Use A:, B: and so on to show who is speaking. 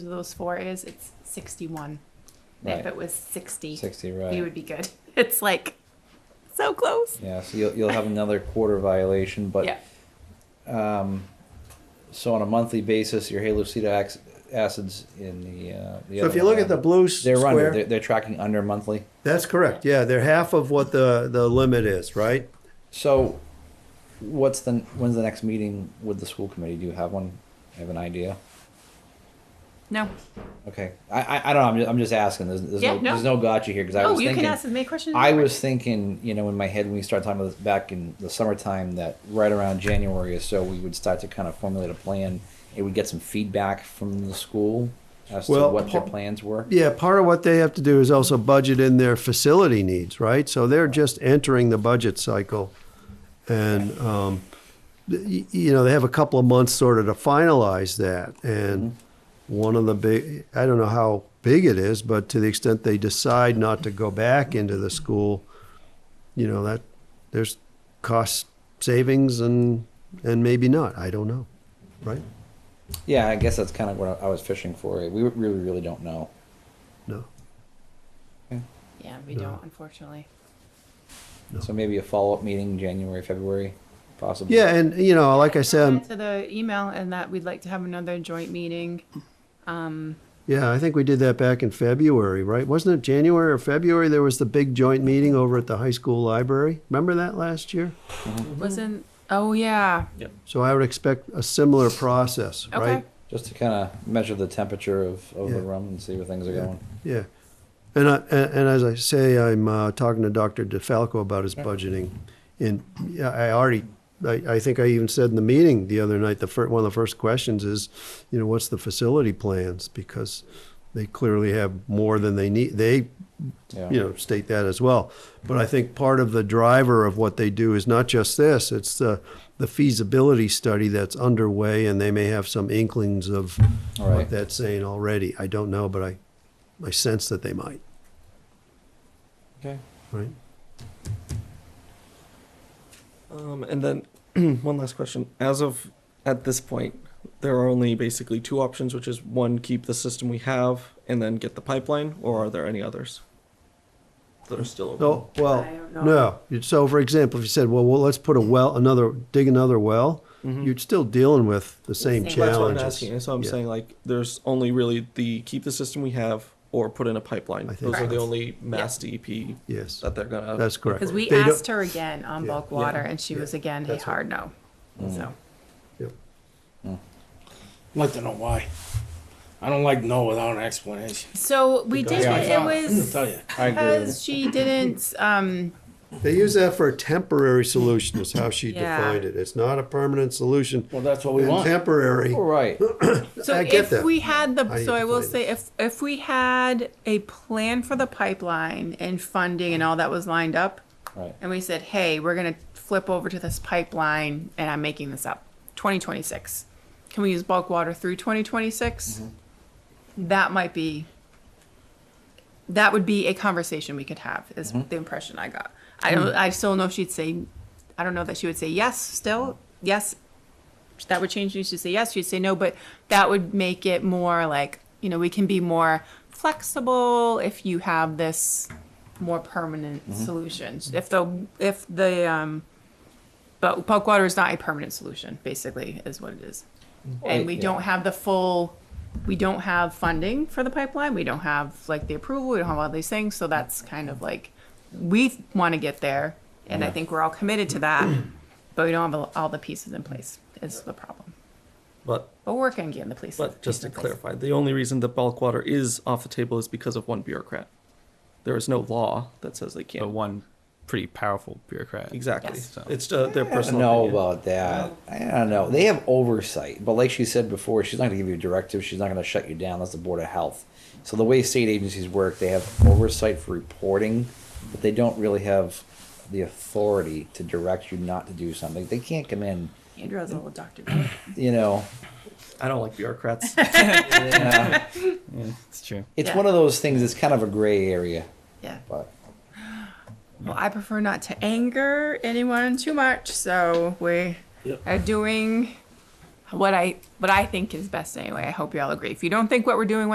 A: of those four is, it's sixty-one. And If
B: Right.
A: it was sixty,
B: Sixty,
A: we
B: right?
A: would be good. It's like so close.
B: Yeah, so you'll, you'll have another quarter violation,
A: yeah.
B: but, um, so on a monthly basis, your Halucida ax- acids in the, uh, the
C: So if
B: other
C: you look
B: one,
C: at the blue
B: They're under,
C: square,
B: they're, they're tracking under monthly.
C: that's correct. Yeah, they're half of what the, the limit is, right?
B: So what's the, when's the next meeting with the school committee? Do you have one? Have an idea?
A: No.
B: Okay, I, I, I don't know, I'm just, I'm just asking, there's, there's
A: Yeah,
B: no,
A: no.
B: there's no gotcha here, cause I
A: Oh,
B: was
A: you
B: thinking.
A: can ask as many questions. as
B: I
A: you want.
B: was thinking, you know, in my head when we started talking about this back in the summertime, that right around January or so, we would start to kind of formulate a plan. It would get some feedback from the school as to
C: Well,
B: what their
C: pa-
B: plans were.
C: Yeah, part of what they have to do is also budget in their facility needs, right? So they're just entering the budget cycle. And, um, th- y- you know, they have a couple of months sort of to finalize that. And one of the big, I don't know how big it is, but to the extent they decide not to go back into the school, you know, that there's cost savings and, and maybe not. I don't know, right?
B: Yeah, I guess that's kind of what I I was fishing for. We really, really don't know.
C: No.
A: Yeah, we
C: No.
A: don't, unfortunately.
B: So maybe a follow-up meeting, January, February, possibly.
C: Yeah, and, you know, like I said, I'm-
A: to the email and that we'd like to have another joint meeting. Um,
C: Yeah, I think we did that back in February, right? Wasn't it January or February? There was the big joint meeting over at the high school library. Remember that last year?
B: Mm-hmm.
A: wasn't, oh, yeah.
C: So I would expect a similar process,
A: Okay.
C: right?
B: Just to kind of measure the temperature of, of the
C: Yeah.
B: room and see where things are
C: Yeah.
B: going.
C: Yeah. And, I, and, and as I say, I'm uh, talking to Dr. DeFalco about his budgeting. And yeah, I already, I, I think I even said in the meeting the other night, the fir- one of the first questions is, you know, what's the facility plans? Because they clearly have more than they need. They
B: Yeah.
C: you know, state that as well. But I think part of the driver of what they do is not just this, it's the, the feasibility study that's underway, and they may have some inklings of
B: All right.
C: what that's saying already. I don't know, but I, I sense that they might,
B: Okay.
C: right?
D: Um, and then one last question. As of at this point, there are only basically two options, which is one, keep the system we have and then get the pipeline, or are there any others that are still open?
C: No, Oh, well,
A: I don't know.
C: no. So for example, if you said, well, well, let's put a well, another, dig another well,
D: Mhm.
C: you're still dealing with the
A: Same.
C: same
D: That's what I'm
C: challenges.
D: asking. That's what I'm
C: Yeah.
D: saying. Like, there's only really the keep the system we have or put in a pipeline.
C: I
D: Those
C: think
D: are the
A: so.
D: only mass DEP
C: Yes,
D: that they're gonna.
C: that's correct.
A: Because we
C: They don't-
A: asked her again on
C: Yeah.
A: bulk water
D: Yeah.
A: and she was
C: Yeah.
A: again, hey,
C: That's right.
A: hard no.
B: Mm.
A: So,
E: I'd like to know why. I don't like no without an explanation.
A: so we did,
E: Yeah, I
A: it It
E: found-
A: was
E: I'll tell you.
B: I agree with
A: because she didn't, um,
C: They use that for a temporary solution is how she
A: Yeah.
C: defined it. It's not a permanent solution.
E: Well, that's what we
C: and
E: want.
C: temporary.
B: you. All right.
A: So
C: I get
A: if
C: that.
A: we had
C: How
A: the,
C: you
A: so I will
C: define
A: say, if if we had a plan for the pipeline and funding and all that was lined up,
B: Right.
A: and we said, hey, we're gonna flip over to this pipeline, and I'm making this up, 2026. Can we use bulk water through 2026? That might be. That would be a conversation we could have. Is the impression I got. I don't. I still don't know if she'd say. I don't know that she would say yes. Still yes, that would change things. She'd say yes, she'd say no, but that would make it more like, you know, we can be more flexible if you have this more permanent
D: Mm-hmm.
A: solution. If the if the um but bulk water is not a permanent solution, basically, is what it is.
D: Mm-hmm.
A: And we
B: yeah.
A: don't have the full we don't have funding for the pipeline. We don't have like the approval. We don't have all these things. So that's kind of like we want to get there, and I think we're all committed to that, but we don't have all the pieces in place. Is the problem?
D: But
A: But we're working on getting the police.
D: But just to
A: in place.
D: clarify, the only reason that bulk water is off the table is because of one bureaucrat. There is no law that says they
F: but
D: can't.
F: one pretty powerful bureaucrat.
D: Exactly.
A: Yes.
F: So-
D: It's uh, their
B: I don't
D: personal.
B: know
D: opinion.
B: about that. I don't know. They have oversight, but like she said before, she's not going to give you directives. She's not going to shut you down. That's the Board of Health. So the way state agencies work, they have oversight for reporting, but they don't really have the authority to direct you not to do something. They can't come in,
A: Andrew has a little doctor. note.
B: you know.
D: I don't like bureaucrats.
B: Yeah.
F: It's true.
B: It's
A: Yeah.
B: one of those things. It's kind of a gray area,
A: Yeah.
B: but
A: Well, I prefer not to anger anyone too much, so we
E: Yep.
A: are doing what I what I think is best anyway. I hope you all agree. If you don't think what we're doing